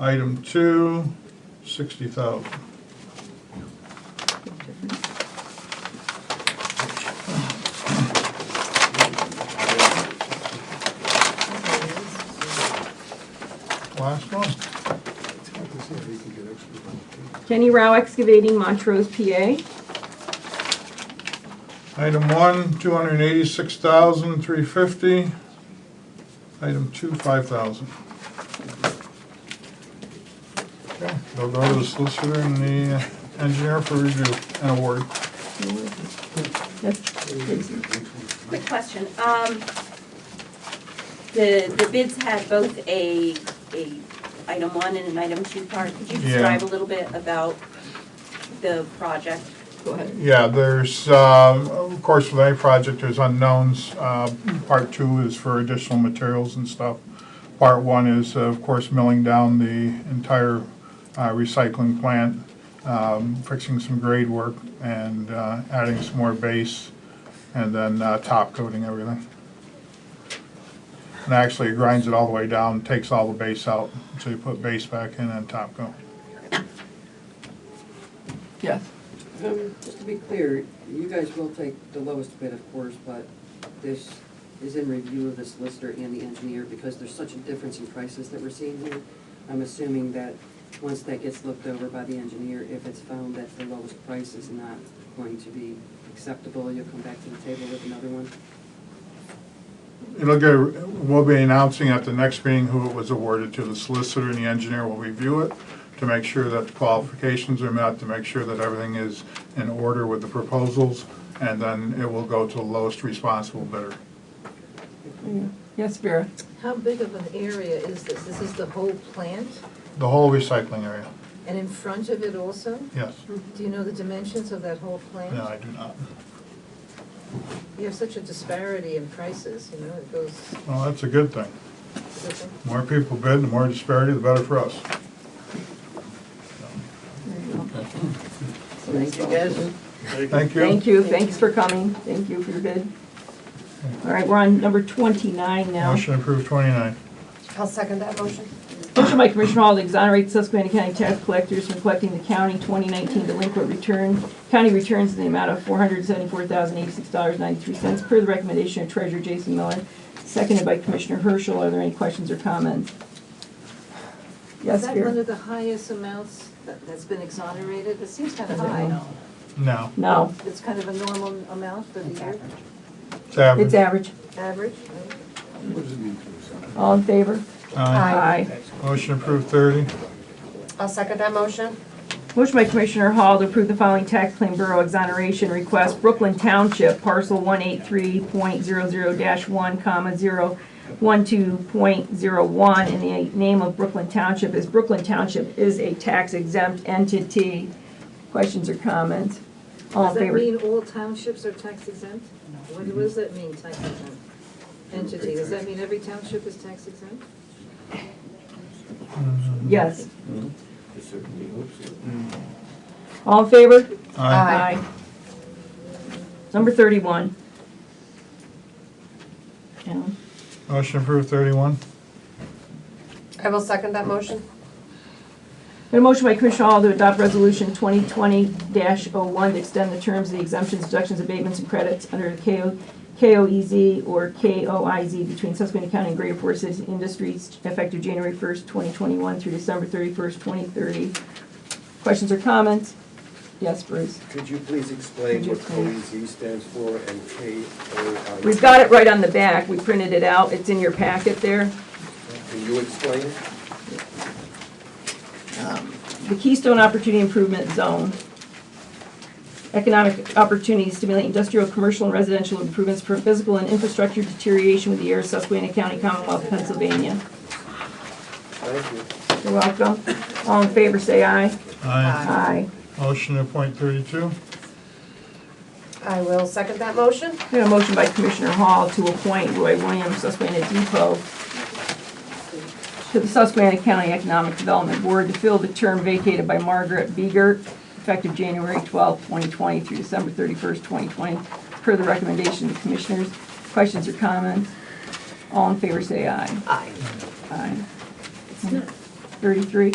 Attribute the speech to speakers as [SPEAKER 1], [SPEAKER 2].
[SPEAKER 1] Item two, sixty thousand. Last one.
[SPEAKER 2] Jenny Rao Excavating, Montrose, PA.
[SPEAKER 1] Item one, two hundred and eighty-six thousand, three fifty. Item two, five thousand. Okay, they'll go to the solicitor and the uh, engineer for review and award.
[SPEAKER 3] Quick question. Um, The, the bids had both a, a item one and an item two part. Could you
[SPEAKER 1] Yeah.
[SPEAKER 3] describe a little bit about the project?
[SPEAKER 2] Go ahead.
[SPEAKER 1] Yeah, there's, um, of course, with any project, there's unknowns. Uh, Part two is for additional materials and stuff. Part one is, uh, of course, milling down the entire uh, recycling plant, um, fixing some grade work, and uh, adding some more base, and then uh, top coating everything. And actually, it grinds it all the way down, takes all the base out, so you put base back in and top coat.
[SPEAKER 2] Yes.
[SPEAKER 4] Um, Just to be clear, you guys will take the lowest bid, of course, but this is in review of the solicitor and the engineer because there's such a difference in prices that we're seeing here. I'm assuming that once that gets looked over by the engineer, if it's found that the lowest price is not going to be acceptable, you'll come back to the table with another one.
[SPEAKER 1] It'll go, we'll be announcing at the next meeting who it was awarded to. The solicitor and the engineer will review it to make sure that the qualifications are met, to make sure that everything is in order with the proposals, and then it will go to the lowest responsible bidder.
[SPEAKER 2] Yes, Vera.
[SPEAKER 5] How big of an area is this? This is the whole plant,
[SPEAKER 1] The whole recycling area,
[SPEAKER 5] and in front of it also?
[SPEAKER 1] yes.
[SPEAKER 6] Mm-hmm.
[SPEAKER 5] Do you know the dimensions of that whole plant?
[SPEAKER 1] No, I do not.
[SPEAKER 5] You have such a disparity in prices, you know, it goes,
[SPEAKER 1] Well, that's a good thing. More people bid, the more disparity, the better for us.
[SPEAKER 4] Thank you, guys.
[SPEAKER 1] Thank you.
[SPEAKER 2] Thank you, thanks for coming, thank you for your bid. All right, we're on number twenty-nine now.
[SPEAKER 1] Motion approved twenty-nine.
[SPEAKER 6] I'll second that motion.
[SPEAKER 2] Motion by Commissioner Hall to exonerate Susquehanna County tax collectors from collecting the county 2019 delinquent return, county returns in the amount of $474,086.93 per the recommendation of Treasurer Jason Miller, seconded by Commissioner Herschel. Are there any questions or comments?
[SPEAKER 5] Is
[SPEAKER 2] Yes,
[SPEAKER 5] that one
[SPEAKER 2] Vera?
[SPEAKER 5] of the highest amounts that- that's been exonerated? It seems kind of high.
[SPEAKER 1] No,
[SPEAKER 2] No,
[SPEAKER 5] It's kind of a normal amount for the year,
[SPEAKER 1] it's average.
[SPEAKER 2] it's average.
[SPEAKER 5] average?
[SPEAKER 2] All in favor?
[SPEAKER 1] Aye.
[SPEAKER 2] Aye.
[SPEAKER 1] Motion approved thirty.
[SPEAKER 6] I'll second that motion.
[SPEAKER 2] Motion by Commissioner Hall to approve the following tax claim bureau exoneration request. Brooklyn Township, parcel 183.00-1, comma, 012.01, and the name of Brooklyn Township is, Brooklyn Township is a tax exempt entity. Questions or comments? All
[SPEAKER 5] Does
[SPEAKER 2] in
[SPEAKER 5] that
[SPEAKER 2] favor?
[SPEAKER 5] mean all townships are tax exempt? What what does that mean, tax exempt entity? Does that mean every township is tax exempt?
[SPEAKER 2] Yes.
[SPEAKER 7] I certainly hope so.
[SPEAKER 2] All in favor?
[SPEAKER 1] Aye.
[SPEAKER 6] Aye.
[SPEAKER 2] Number 31. Alan?
[SPEAKER 1] Motion approved thirty-one.
[SPEAKER 6] I will second that motion.
[SPEAKER 2] Got a motion by Commissioner Hall to adopt Resolution 2020-01 to extend the terms of the exemptions, deductions, abatements, and credits under the KO KOEZ E or KOIZ between Susquehanna County and Greater Forest City Industries effective January 1st, 2021 through December 31st, 2030. Questions or comments? Yes, Bruce?
[SPEAKER 7] Could you please explain
[SPEAKER 2] Could you
[SPEAKER 7] what
[SPEAKER 2] explain?
[SPEAKER 7] COEZ stands for and KOI?
[SPEAKER 2] We've got it right on the back. We printed it out. It's in your packet there.
[SPEAKER 7] Can you explain?
[SPEAKER 2] the Keystone Opportunity Improvement Zone. Economic opportunities stimulate industrial, commercial, and residential improvements for physical and infrastructure deterioration with the air of Susquehanna County, Commonwealth, Pennsylvania.
[SPEAKER 7] Thank you.
[SPEAKER 2] You're welcome. All in favor, say aye.
[SPEAKER 1] Aye.
[SPEAKER 2] Aye.
[SPEAKER 1] Motion to appoint thirty-two.
[SPEAKER 6] I will second that motion.
[SPEAKER 2] We have a motion by Commissioner Hall to appoint Roy Williams, Susquehanna Depot, to the Susquehanna County Economic Development Board to fill the term vacated by Margaret Beeger, effective January 12, 2020 through December 31st, 2020, per the recommendation of the Commissioners. Questions or comments? All in favor, say aye.
[SPEAKER 6] Aye.
[SPEAKER 2] Aye.
[SPEAKER 5] It's not
[SPEAKER 2] thirty-three.